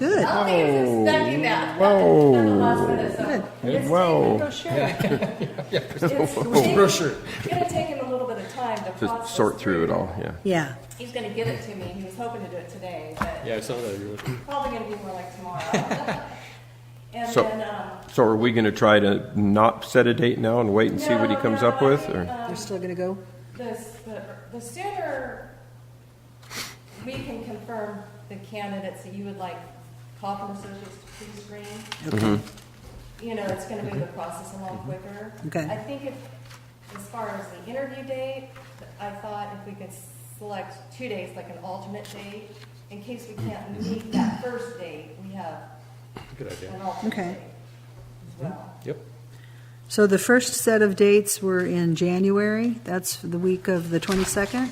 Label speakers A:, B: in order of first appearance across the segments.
A: Good.
B: I don't think it's inspecting that.
C: Whoa.
B: Not the last minute, so it's
C: Whoa.
B: taken- It's
D: Brochure.
B: it's gonna take him a little bit of time to
C: To
B: process.
C: sort through it all, yeah.
A: Yeah.
B: He's gonna get it to me. He was hoping to do it today, but
D: Yeah, I saw that. You were-
B: probably gonna be more like tomorrow. And
C: So-
B: then, um,
C: So are we going to try to not set a date now and wait and see what he
B: No,
C: comes
B: no,
C: up
B: I
C: with?
B: think,
C: Or
A: You're
B: um,
A: still gonna go?
B: this- The the sooner we can confirm the candidates that you would like Kaufman Associates to pre-screen, you know, it's gonna move the process along quicker.
A: Okay.
B: I think if, as far as the interview date, I thought if we could select two days, like an alternate date, in case we can't meet that first date, we have
D: Good
B: an
D: idea.
B: alternate
A: Okay.
B: date as well.
D: Yep.
A: So the first set of dates were in January. That's the week of the 22nd.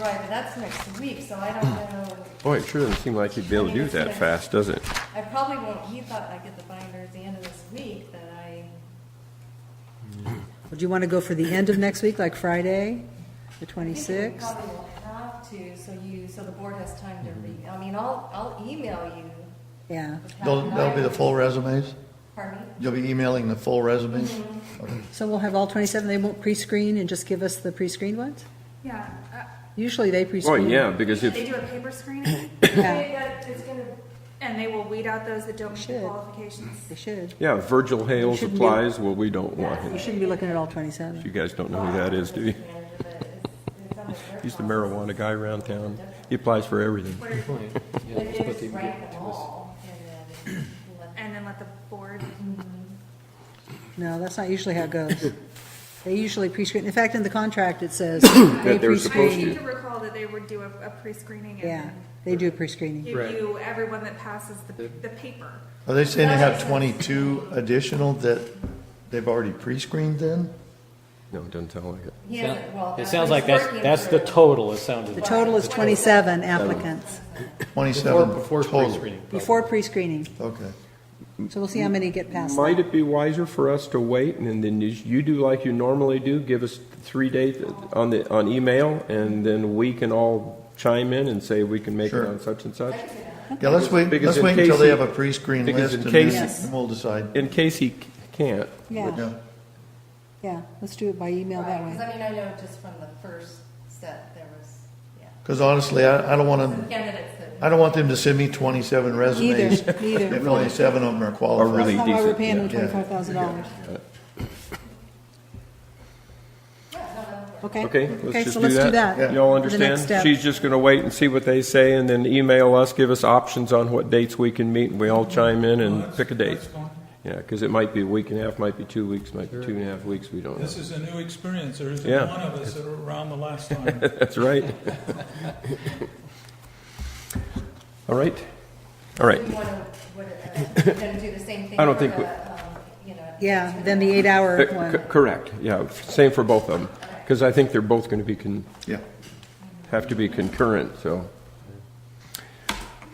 B: Right, but that's next week, so I don't know.
C: boy, it sure doesn't seem like you'd be able to do that fast, does it?
B: I probably won't, he thought I'd get the binder at the end of this week, but I,
A: Would you want to go for the end of next week, like Friday, the
B: I think we
A: 26th?
B: probably will have to, so you, so the board has time to read, I mean, I'll, I'll email you.
A: Yeah.
B: the
E: They'll,
B: packet.
E: they'll be the full resumes?
B: Pardon me?
E: You'll be emailing the full resumes?
A: Mm-hmm. So we'll have all 27. They won't pre-screen and just give us the pre-screened ones?
F: Yeah, uh,
A: Usually they
C: Oh,
A: pre-screen.
C: yeah, because
F: they
C: if,
F: do a paper screening, uh,
A: Yeah,
B: They got- It's gonna,
F: and they will weed out those that don't meet the
A: Should.
F: qualifications.
A: They should.
C: yeah, if Virgil Hales
A: Shouldn't be-
C: applies, well, we don't want
A: You
C: him.
A: shouldn't be looking at all 27.
C: You guys don't know who that is, do you?
B: manager, but it's, it's on their
C: He's the
B: process.
C: marijuana guy around town. He applies for everything.
D: Yeah,
B: But
D: let's
B: they
D: put
B: just
D: the-
B: rank them all, and then let
F: And then let the board,
A: No, that's not usually how it goes. They usually pre-screen. In fact, in the contract, it says.
C: they're
A: That
F: I
C: supposed
F: seem to recall that they would do a, a pre-screening and
A: Yeah,
F: then
A: they do pre-screening.
F: give
D: Right.
F: you everyone that passes the, the paper.
E: Are they saying they have 22 additional that they've already pre-screened then?
C: No, it doesn't sound like it.
B: He hasn't, well.
G: It sounds like that's,
B: he's
G: that's the
B: working
G: total, it sounded
A: The
G: like.
A: total is 27 applicants
D: Before,
E: 27
D: before
E: total?
D: pre-screening. probably.
A: before pre-screening.
E: Okay.
A: So we'll see how many get past.
C: Might
A: that.
C: it be wiser for us to wait and then you- you do like you normally do, give us three dates on the, on email, and then we can all chime in and say we can make it
E: Sure.
C: on such and such?
E: Yeah, let's wait,
C: Because
E: let's
C: in
E: wait until
C: case
E: they
C: he-
E: have a pre-screen
C: because
E: list
C: in
E: and
C: case
A: he-
E: then then we'll decide.
C: In case he c- can't,
A: Yeah,
E: Yeah.
A: yeah, let's do it by email that
B: Because
A: way.
B: I mean, I know just from the first set, there was, yeah,
E: Because honestly, I, I don't want
B: some
E: to,
B: candidates that.
E: I don't want them to send me 27 resumes
A: Neither, neither.
E: if only seven of them are
C: are
E: qualified.
C: really
A: That's not why we're
C: decent.
A: paying them
E: yeah, yeah.
A: $25,000. Okay?
C: Okay, let's just
A: so
C: do
A: let's
C: that. Y'all
A: for the next
C: understand?
A: step.
C: She's just gonna wait and see what they say and then email us, give us options on what dates we can meet, and we all chime in and pick a date. Yeah, because it might be a week and a half, might be two weeks, might be two and a half weeks, we don't know.
H: This is a new experience. There isn't
C: Yeah.
H: one of us that were around the last time.
C: That's right. All right, all right.
B: Do you want to, what, uh, you gonna do the same thing?
C: I don't
B: for
C: think we-
B: the, um, You know.
A: Yeah, then the eight-hour
C: Uh, c-
A: one.
C: Correct, yeah, same for both of them, because I think they're both gonna be con,
E: Yeah.
C: have to be concurrent, so.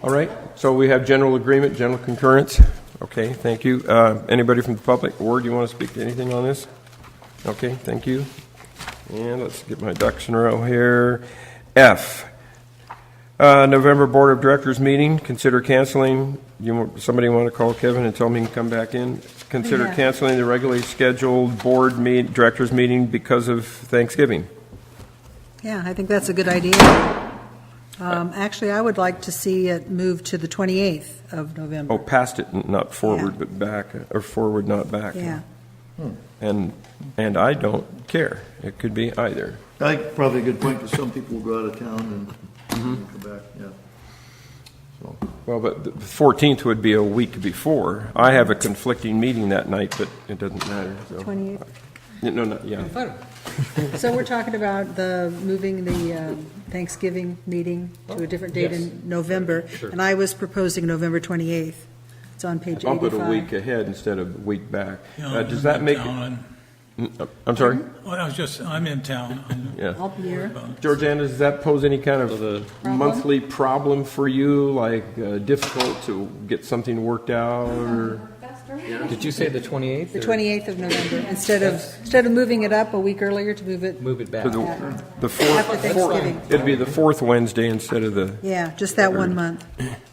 C: All right, so we have general agreement, general concurrence. Okay, thank you. Uh, Anybody from the public? Ward, you want to speak to anything on this? Okay, thank you. And let's get my ducks in a row here. F, uh, November Board of Directors meeting, consider canceling, you, want- somebody want to call Kevin and tell me he can come back in? Consider
A: Yeah.
C: canceling the regularly scheduled board meet, directors meeting because of Thanksgiving.
A: Yeah, I think that's a good idea. Um, Actually, I would like to see it move to the 28th of November.
C: Oh, past it, n- not forward, but back, uh, or forward, not back.
A: Yeah,
C: And, and I don't care. It could be either.
E: I think probably a good point, because some people will go out of town
C: Mm-hmm.
E: and come back, yeah.
C: Well, but the 14th would be a week before. I have a conflicting meeting that night, but it doesn't matter, so.
A: 28th.
C: Yeah, No, not, yeah.
A: So we're talking about the, moving the um, Thanksgiving meeting to a different date in November. And I was proposing November 28th. It's on page
C: Bump it a week
A: 85.
C: ahead instead of a week back.
H: You
C: Uh,
H: know,
C: Does
H: I'm
C: that
H: in
C: make,
H: town
C: Mm, I'm sorry?
H: and- Well, I was just, I'm in town. I'm-
C: Yeah.
A: Up here.
C: Georgiana, does that pose any kind of a monthly problem for you? Like uh, difficult to get something worked out or?
D: Did you say the 28th?
A: The
D: or
A: 28th of November, instead of, instead of moving it up a week earlier to move it
D: Move it back.
C: to the-
A: Yeah.
C: The fourth,
A: after Thanksgiving.
C: it'd be the fourth Wednesday instead of the
A: Yeah, just that one month.